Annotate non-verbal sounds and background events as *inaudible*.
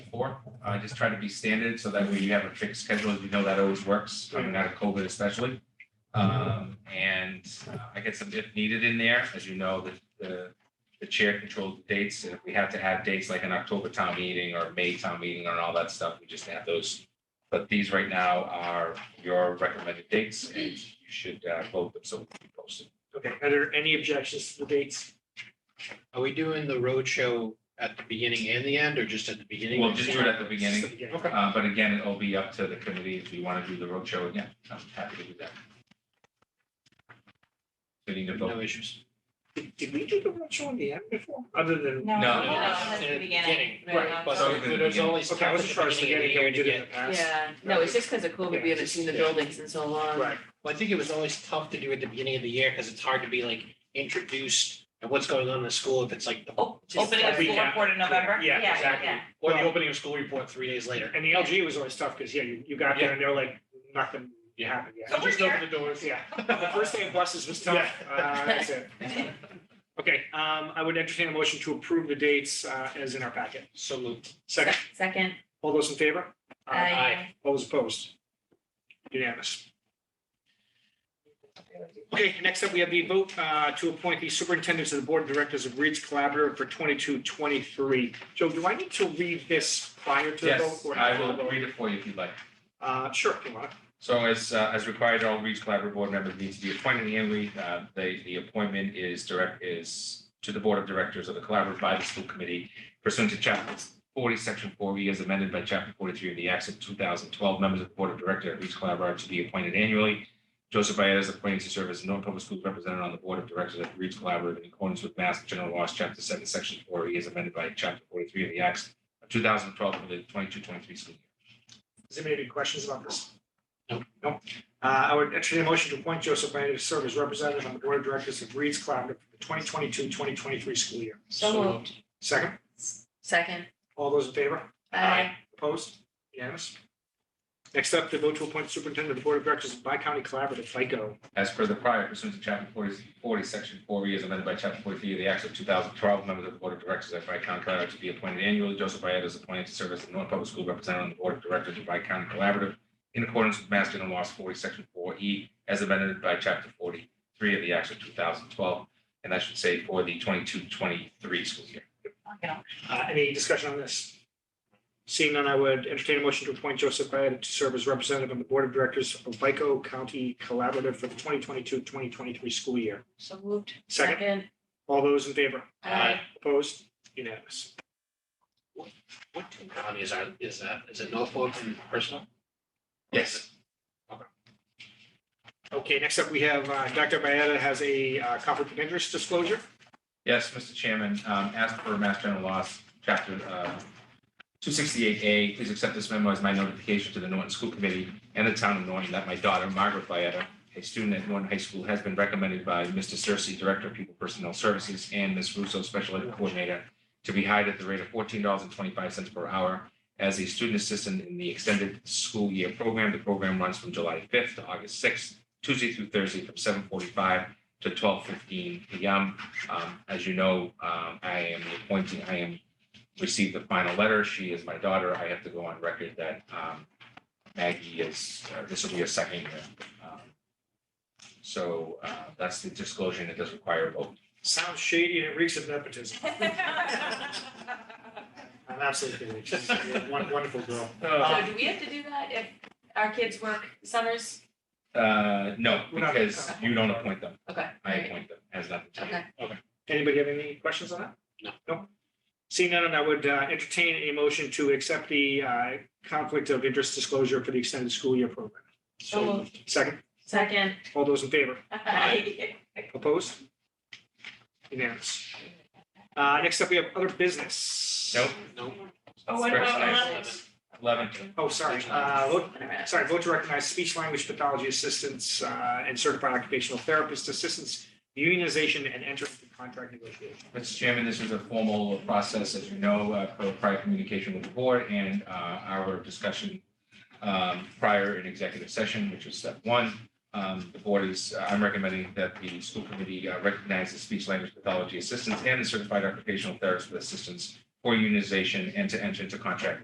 before. I just try to be standard so that way you have a fixed schedule. As you know, that always works, coming out of COVID especially. Um, and uh, I get some if needed in there. As you know, the, the, the chair controls the dates. And if we have to have dates like an October town meeting or May town meeting and all that stuff, we just have those. But these right now are your recommended dates and you should uh, vote them so we can post it. Okay, are there any objections to the dates? Are we doing the roadshow at the beginning and the end, or just at the beginning? We'll just do it at the beginning. Just the beginning. Okay. Uh, but again, it'll be up to the committee if we want to do the roadshow again. I'm happy to do that. So you need to No vote. issues. Did- Did we do the roadshow in the end before, other than? No. No, no, that's At the the beginning. beginning, Very right, long But So time. even the there's beginning. always Okay, I was just trying to stuff at the forget beginning how we and the did it in end. the past. Yeah, no, it's just because of COVID, we haven't seen the buildings in so long. Right, Well, I think it was always tough to do at the beginning of the year, because it's hard to be like introduced and what's going on in the school if it's like the. Oh, just Opening of like- school report in November? Yeah, Exactly. yeah. Or the opening of school report three days later. and the LG was always tough, because, yeah, you, you got there and they're like, nothing happened yet. So Just we're open *laughs* the doors. Yeah, *laughs* the first day of buses was tough. Uh, that's it. Okay, um, I would entertain a motion to approve the dates, uh, as in our packet. So moved. Second, *laughs* Second, all those in favor? Aye. I, All those opposed? Unanimous. Okay, next up, we have the vote uh, to appoint the superintendent to the board of directors of Reed's Collaborative for 22-23. Joe, do I need to read this prior to the vote? Yes, or I after the will vote? read it for you if you'd like. Uh, sure, if you want. So as, uh, as required, all Reach Collaborative Board members need to be appointed annually. Uh, the, the appointment is direct, is to the Board of Directors of the Collaborative by the School Committee pursuant to Chapter forty, Section four, E as amended by Chapter forty-three of the Acts of two thousand twelve, members of the Board of Directors of Reach Collaborative to be appointed annually. Joseph Byetta is appointed to serve as a non-public school representative on the Board of Directors of Reach Collaborative in accordance with Mass General Laws, Chapter seven, Section four, E as amended by Chapter forty-three of the Acts of two thousand twelve, for the 22-23 school year. Does anybody have any questions about this? No. No. Uh, I would entertain a motion to appoint Joseph Bennett to serve as representative on the board of directors of Reed's Collaborative for the 2022-2023 school year. so moved. Second, Second, all those in favor? I, Opposed? Unanimous. Next up, the vote to appoint superintendent of the Board of Directors of Bi-County Collaborative, FICO. As per the prior pursuant to chapter 40, 40, section four, E, as amended by chapter forty-three of the Acts of two thousand twelve, members of the Board of Directors of County Collaborative to be appointed annually. Joseph Byetta is appointed to serve as the North Public School Representative on the Board of Directors of County Collaborative in accordance with Mass General Laws forty, section four, E, as amended by chapter forty-three of the Acts of two thousand twelve. And that should say for the 22-23 school year. Uh, Any discussion on this? Seeing none, I would entertain a motion to appoint Joseph Byetta to serve as representative on the Board of Directors of FICO County Collaborative for the 2022-2023 school year. so moved. Second, all those in favor? I, *laughs* Opposed? Unanimous. What two counties are, is that? Is it Norfolk and Personal? Yes. Okay, next up, we have uh, Dr. Byetta has a uh, conflict of interest disclosure. Yes, Mr. Chairman, um, as per Mass General Laws, Chapter uh, two sixty-eight A, please accept this memo as my notification to the Norton School Committee and the town of Norton that my daughter, Margaret Vieta, a student at Norton High School, has been recommended by Mr. Cersey, Director of People Personnel Services, and Ms. Russo, Special Ed Coordinator, to be hired at the rate of fourteen dollars and twenty-five cents per hour as a student assistant in the extended school year program. The program runs from July fifth to August sixth, Tuesday through Thursday, from seven forty-five to twelve fifteen PM. Um, as you know, um, I am appointing, I am received the final letter. She is my daughter. I have to go on record that, um, Maggie is, uh, this will be a second year. Um, So, uh, that's the disclosure and it does require a vote. Sounds shady and it reeks of *laughs* nepotism. I'm absolutely kidding. She's a won- wonderful girl. Oh. So do we have to do that if our kids work summers? Uh, no, We're not- because you don't appoint them. Okay. I appoint them. Has nothing to do. Okay. Anybody have any questions on that? No. No? Seeing none, I would uh, entertain a motion to accept the uh, conflict of interest disclosure for the extended school year program. So moved. Second, Second, all those in favor? *laughs* I, Opposed? Unanimous. Uh, Next up, we have other business. Nope. No. Oh, what First about item. Alex? Eleven. Oh, sorry. Uh, vote- Sorry, vote to recognize speech language pathology assistants uh, and certified occupational therapist assistants, unionization and enter into contract negotiation. Mr. Chairman, this is a formal process, as you know, uh, for prior communication with the board and uh, our discussion um, prior in executive session, which is step one. Um, The board is, I'm recommending that the school committee uh, recognize the speech language pathology assistants and the certified occupational therapist assistants for unionization and to enter into contract